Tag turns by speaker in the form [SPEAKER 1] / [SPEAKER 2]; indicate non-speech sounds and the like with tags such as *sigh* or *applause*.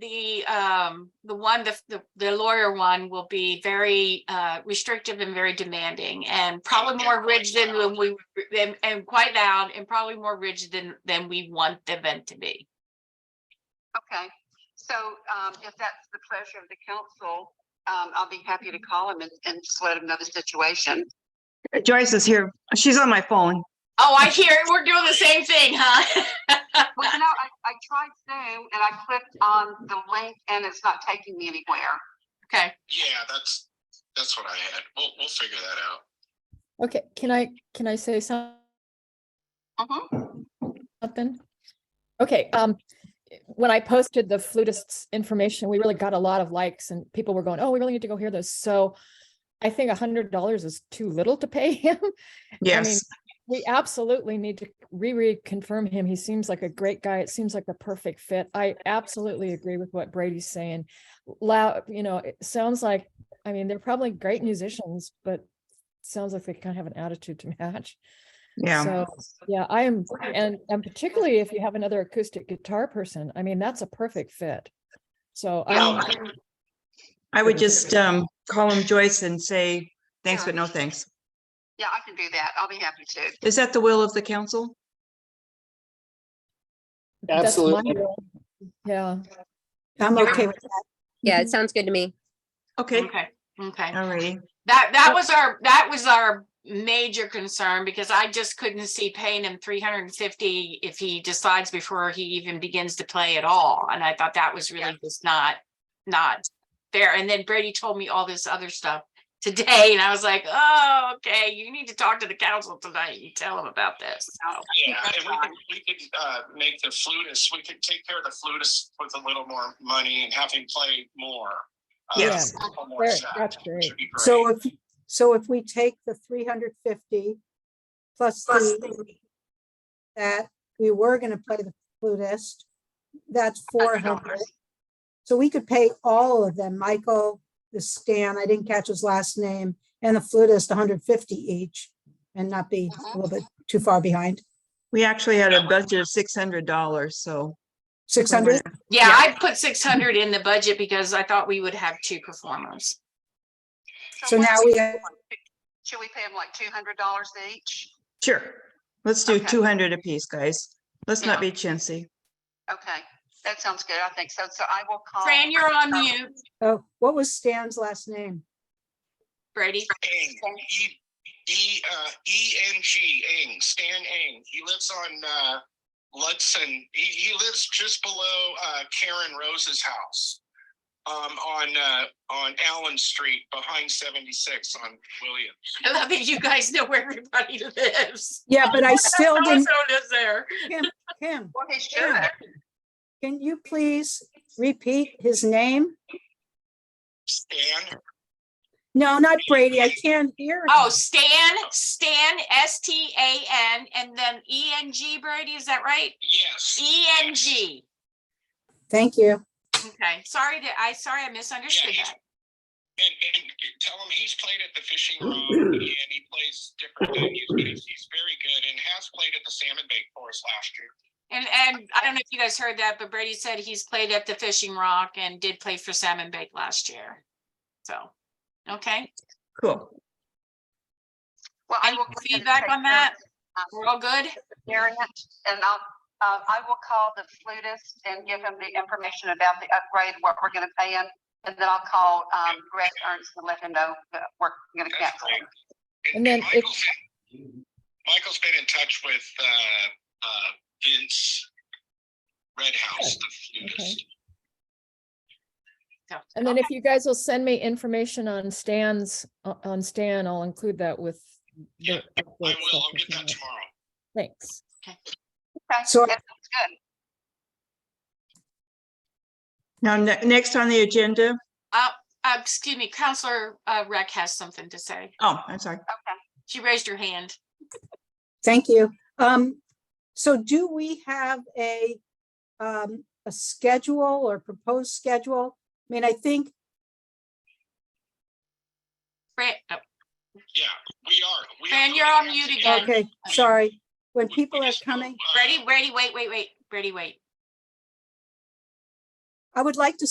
[SPEAKER 1] the, um, the one, the- the, the lawyer one will be very, uh, restrictive and very demanding and probably more rigid than when we, and, and quite loud and probably more rigid than, than we want the event to be.
[SPEAKER 2] Okay, so um, if that's the pleasure of the council, um, I'll be happy to call him and, and just let him know the situation.
[SPEAKER 3] Joyce is here. She's on my phone.
[SPEAKER 1] Oh, I hear it. We're doing the same thing, huh? *laughs*
[SPEAKER 2] Well, you know, I, I tried Zoom and I clicked on the link and it's not taking me anywhere.
[SPEAKER 1] Okay,
[SPEAKER 4] Yeah, that's, that's what I had. We'll, we'll figure that out.
[SPEAKER 5] Okay, can I, can I say some-
[SPEAKER 2] Mhm.
[SPEAKER 5] something? Okay, um, when I posted the flutist's information, we really got a lot of likes and people were going, oh, we really need to go hear this. So I think a hundred dollars is too little to pay him.
[SPEAKER 3] Yes.
[SPEAKER 5] We absolutely need to re-reconfirm him. He seems like a great guy. It seems like the perfect fit. I absolutely agree with what Brady's saying. Loud, you know, it sounds like, I mean, they're probably great musicians, but sounds like they kind of have an attitude to *laughs* match.
[SPEAKER 3] Yeah.
[SPEAKER 5] So, yeah, I am, and, and particularly if you have another acoustic guitar person, I mean, that's a perfect fit. So
[SPEAKER 4] Yeah.
[SPEAKER 5] I,
[SPEAKER 3] I would just um call him Joyce and say, thanks, but no thanks.
[SPEAKER 2] Yeah, I can do that. I'll be happy to.
[SPEAKER 3] Is that the will of the council?
[SPEAKER 5] that's my
[SPEAKER 6] Absolutely.
[SPEAKER 5] role. Yeah,
[SPEAKER 3] I'm
[SPEAKER 1] okay
[SPEAKER 3] with.
[SPEAKER 7] Yeah, it sounds good to me.
[SPEAKER 3] Okay,
[SPEAKER 1] okay, okay.
[SPEAKER 3] all righty.
[SPEAKER 1] That, that was our, that was our major concern because I just couldn't see paying him three hundred and fifty if he decides before he even begins to play at all. And I thought that was really just not, not fair. And then Brady told me all this other stuff today and I was like, oh, okay, you need to talk to the council tonight. You tell them about this. So,
[SPEAKER 4] Yeah,
[SPEAKER 2] That's
[SPEAKER 4] and we could,
[SPEAKER 2] fine.
[SPEAKER 4] we could, uh, make the flutist, we could take care of the flutist with a little more money and have him play more. uh,
[SPEAKER 3] Yes.
[SPEAKER 4] a couple more
[SPEAKER 5] Great,
[SPEAKER 4] sets.
[SPEAKER 5] that's great.
[SPEAKER 4] Should be great.
[SPEAKER 8] So if, so if we take the three hundred fifty plus the that we were gonna play the flutist, that's four hundred.
[SPEAKER 2] $100.
[SPEAKER 8] So we could pay all of them, Michael, the Stan, I didn't catch his last name, and the flutist, hundred fifty each, and not be a little bit too far behind.
[SPEAKER 3] We actually had a budget of six hundred dollars, so.
[SPEAKER 8] Six hundred,
[SPEAKER 1] yeah,
[SPEAKER 3] Yeah.
[SPEAKER 1] I put six hundred in the budget because I thought we would have two performers.
[SPEAKER 8] so
[SPEAKER 2] what-
[SPEAKER 8] now we have,
[SPEAKER 2] Should we pay him like two hundred dollars each?
[SPEAKER 3] Sure, let's do
[SPEAKER 2] Okay.
[SPEAKER 3] two hundred apiece, guys. Let's
[SPEAKER 2] Yeah.
[SPEAKER 3] not be chintzy.
[SPEAKER 2] Okay, that sounds good. I think so. So I will call.
[SPEAKER 1] Fran, you're on mute.
[SPEAKER 8] oh, what was Stan's last name?
[SPEAKER 1] Brady,
[SPEAKER 4] Ing, E, E, uh, E N G, Ing, Stan Ing. He lives on, uh, Ludson. He, he lives just below, uh, Karen Rose's house. Um, on, uh, on Allen Street behind seventy-six on Williams.
[SPEAKER 1] *laughs* I love that you guys know where everybody *laughs* lives.
[SPEAKER 8] Yeah, but I still didn't,
[SPEAKER 1] So does there.
[SPEAKER 8] Kim,
[SPEAKER 2] Well, he's
[SPEAKER 8] Sure.
[SPEAKER 2] good.
[SPEAKER 8] can you please repeat his name?
[SPEAKER 4] Stan,
[SPEAKER 8] No, not Brady, I can't hear.
[SPEAKER 1] Oh,
[SPEAKER 8] him.
[SPEAKER 1] Stan, Stan, S T A N, and then E N G, Brady, is that right?
[SPEAKER 4] yes.
[SPEAKER 1] E N G.
[SPEAKER 8] Thank you.
[SPEAKER 1] Okay, sorry that, I, sorry, I misunderstood
[SPEAKER 4] Yeah,
[SPEAKER 1] that.
[SPEAKER 4] And, and tell him he's played at the fishing room and he plays
[SPEAKER 8] *laughs*
[SPEAKER 4] different venues, but he's, he's very good and has played at the Salmon Bake for us last year.
[SPEAKER 1] And, and I don't know if you guys heard that, but Brady said he's played at the Fishing Rock and did play for Salmon Bake last year. So, okay,
[SPEAKER 3] Cool.
[SPEAKER 2] Well, I
[SPEAKER 1] Any
[SPEAKER 2] will go ahead and
[SPEAKER 1] feedback
[SPEAKER 2] take
[SPEAKER 1] on
[SPEAKER 2] care of
[SPEAKER 1] that?
[SPEAKER 2] it, um,
[SPEAKER 1] we're all good?
[SPEAKER 2] Variant, and I'll, uh, I will call the flutist and give him the information about the upgrade, what we're gonna pay him. And then I'll call, um, Greg Ernst and let him know that we're gonna
[SPEAKER 4] That's
[SPEAKER 2] cancel.
[SPEAKER 4] great.
[SPEAKER 2] him.
[SPEAKER 5] And then if-
[SPEAKER 4] Michael's in- Michael's been in touch with, uh, uh, Vince Redhouse, the flutist.
[SPEAKER 1] So,
[SPEAKER 5] and then if you guys will send me information on Stan's, o- on Stan, I'll include that with.
[SPEAKER 4] Yeah, I
[SPEAKER 5] the update
[SPEAKER 4] will, I'll
[SPEAKER 5] stuff
[SPEAKER 4] get
[SPEAKER 5] as
[SPEAKER 4] that
[SPEAKER 5] well.
[SPEAKER 4] tomorrow.
[SPEAKER 5] Thanks.
[SPEAKER 2] Okay,
[SPEAKER 8] So-
[SPEAKER 2] that sounds good.
[SPEAKER 3] Now, ne- next on the agenda,
[SPEAKER 1] Uh, excuse me, Counselor, uh, Rec has something to say.
[SPEAKER 3] oh, I'm sorry.
[SPEAKER 2] Okay.
[SPEAKER 1] She raised her hand.
[SPEAKER 8] Thank you. Um, so do we have a, um, a schedule or proposed schedule? I mean, I think,
[SPEAKER 1] Fran, oh,
[SPEAKER 4] Yeah, we are. we are
[SPEAKER 1] Fran, you're
[SPEAKER 4] going
[SPEAKER 1] on
[SPEAKER 4] out
[SPEAKER 1] mute
[SPEAKER 4] to-
[SPEAKER 1] again.
[SPEAKER 8] okay, sorry, when people are
[SPEAKER 4] Just,
[SPEAKER 8] coming,
[SPEAKER 4] uh,
[SPEAKER 1] Brady, Brady, wait, wait, wait, Brady, wait.
[SPEAKER 8] I would like to